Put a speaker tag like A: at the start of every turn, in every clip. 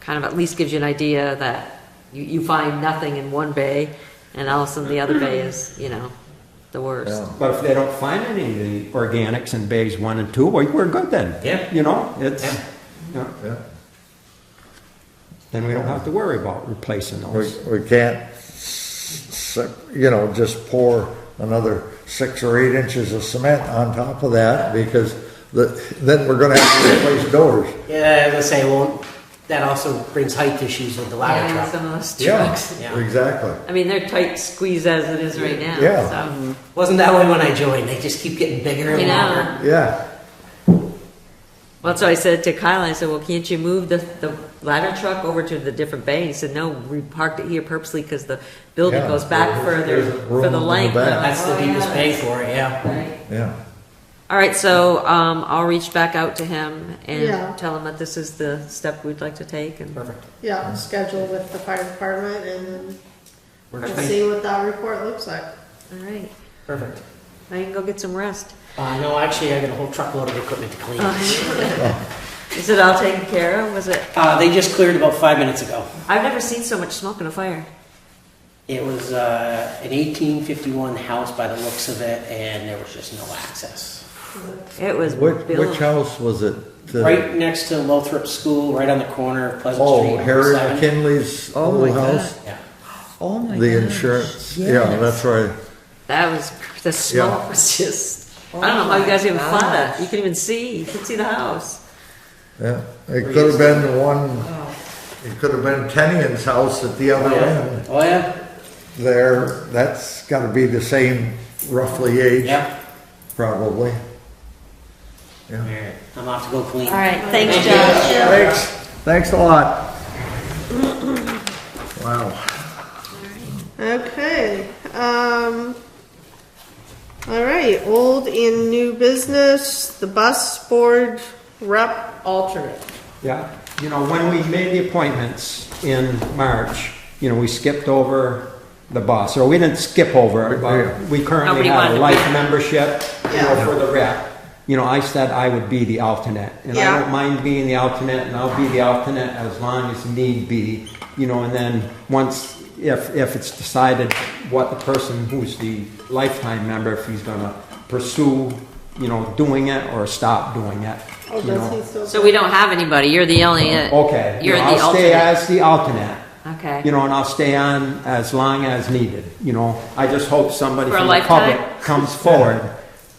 A: kind of at least gives you an idea that you, you find nothing in one bay, and all of a sudden the other bay is, you know, the worst.
B: Yeah.
C: But if they don't find any of the organics in bays one and two, well, we're good then.
D: Yeah.
C: You know, it's,
D: Yeah.
C: you know,
B: Yeah.
C: then we don't have to worry about replacing
B: We,
C: those.
B: we can't, se- you know, just pour another six or eight inches of cement on top of that because the, then we're gonna have to replace doors.
D: Yeah, I was gonna say, well, that also brings height issues with the ladder
A: Yeah,
D: truck.
A: Some of those
B: Yeah,
A: trucks.
D: Yeah.
B: exactly.
A: I mean, they're tight squeeze as it is right now,
B: Yeah.
A: so,
D: Wasn't that way when I joined? They just keep getting bigger and
A: you
D: longer.
A: know.
B: Yeah,
A: Well, so I said to Kyle, I said, well, can't you move the, the ladder truck over to the different bay? He said, no, we parked it here purposely because the building
B: Yeah,
A: goes back
B: there-
A: further
B: there's room
A: for
B: in
A: the
B: the
A: length.
B: back.
A: I'm like,
D: That's the
A: "Oh, yeah,
D: deepest pay
A: that's
D: for it, yeah.
A: right."
B: yeah.
A: All right, so, um, I'll reach back out to him
E: Yeah.
A: and tell him that this is the step we'd like to take and.
D: Perfect.
E: Yeah, schedule with the fire department and then
D: Works
E: we'll
D: for me.
E: see what that report looks like.
A: All right,
D: Perfect.
A: now you can go get some rest.
D: Uh, no, actually, I got a whole truckload of equipment to clean.
A: Oh, Is it all taken care of? Was it?
D: Uh, they just cleared about five minutes ago.
A: I've never seen so much smoke in a fire.
D: It was uh, an 1851 house by the looks of it, and there was just no access.
A: It was
B: Which, which
A: billowing.
B: house was it? The-
D: Right next to Lothrop School, right on the corner of Pleasant Street.
B: Oh,
D: and
B: Harry
D: Seven.
B: McKinley's
F: Oh
B: old
F: my God.
B: house,
D: Yeah.
F: Oh my
B: the
F: gosh,
B: insurance, yeah,
F: yes.
B: that's right.
A: That was, the smoke was just, I don't know how you guys even fought it. You can even see, you can see the house.
B: Yeah, it could have been the one, it could have been Tenian's house at the
D: Oh,
B: other
D: yeah.
B: end
D: Oh, yeah.
B: there. That's gotta be the same roughly age,
D: Yeah.
B: probably.
D: All
B: Yeah.
D: right. I'm off to go clean.
A: All right, thanks,
D: Thank you.
A: Josh.
B: Thanks, thanks a lot. Wow.
E: Okay, um, all right, old and new business, the bus board rep alternate.
C: Yeah, you know, when we made the appointments in March, you know, we skipped over the bus, or we didn't skip over it, but we currently
A: Nobody
C: have
A: wanted
C: a
A: to
C: life
A: be-
C: membership, you know,
E: Yeah.
C: for the rep. You know, I said I would be the alternate, and I
E: Yeah.
C: don't mind being the alternate, and I'll be the alternate as long as need be, you know, and then once, if, if it's decided what the person who's the lifetime member, if he's gonna pursue, you know, doing it or stop doing it.
E: Oh,
C: you know.
E: does he still?
A: So we don't have anybody, you're the only. uh,
C: Okay.
A: You're
C: Yeah,
A: the
C: I'll stay
A: alternate.
C: as the alternate, you
A: Okay.
C: know, and I'll stay on as long as needed, you know. I just hope somebody
A: For a
C: from the public
A: lifetime?
C: comes forward.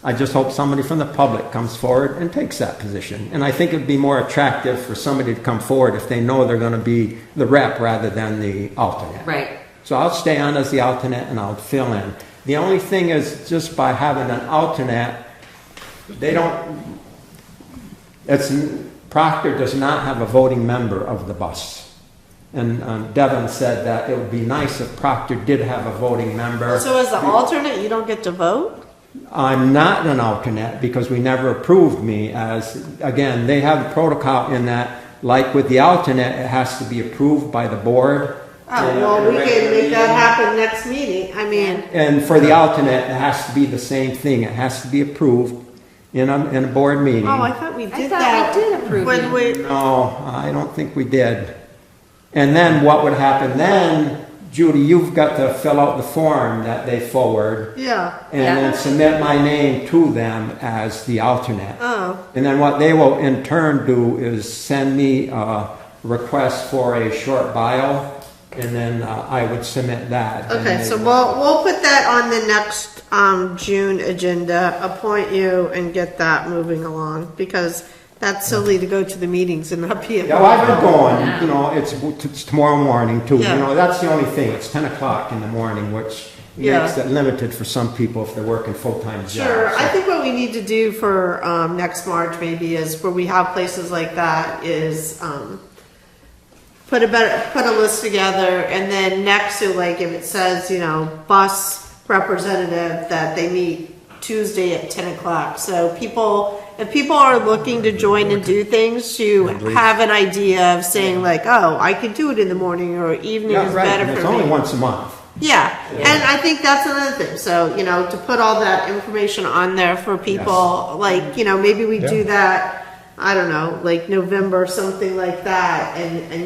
C: I just hope somebody from the public comes forward and takes that position. And I think it'd be more attractive for somebody to come forward if they know they're gonna be the rep rather than the alternate.
A: Right.
C: So I'll stay on as the alternate and I'll fill in. The only thing is just by having an alternate, they don't, it's, Proctor does not have a voting member of the bus. And um, Devin said that it would be nice if Proctor did have a voting member.
E: So as the alternate, you don't get to vote?
C: I'm not an alternate because we never approved me as, again, they have a protocol in that, like with the alternate, it has to be approved by the board.
E: Oh, well, we can make that happen next meeting, I mean,
C: And for the alternate, it has to be the same thing. It has to be approved in a, in a board meeting.
E: oh, I thought we
A: I
E: did
A: thought we
E: that.
A: did approve
E: When
A: it.
E: we,
C: No, I don't think we did. And then what would happen then, Judy, you've got to fill out the form that they forward
E: yeah,
C: and then submit my name to them as the alternate.
E: oh,
C: And then what they will in turn do is send me a request for a short bio and then uh, I would submit that. and
E: okay,
C: they
E: so
C: would-
E: we'll, we'll put that on the next, um, June agenda, appoint you and get that moving along, because that's silly to go to the meetings and not be.
C: Yeah, well, I've been going, you know, it's, it's tomorrow morning too, you
E: Yeah.
C: know, that's the only thing, it's ten o'clock in the morning, which
E: Yeah.
C: makes it limited for some people if they're working full-time jobs.
E: Sure, I think what we need to do for, um, next March maybe is where we have places like that is, um, put a better, put a list together and then next to like if it says, you know, bus representative that they meet Tuesday at ten o'clock. So people, if people are looking to join and do things, you have an idea of saying like, oh, I could do it in the morning or evening
C: Yeah,
E: is
C: right,
E: better
C: and it's
E: for me.
C: only once a month.
E: Yeah, and I think that's another thing, so, you know, to put all that information on there for people, like, you know, maybe we do that, I don't know, like November, something like that, and, and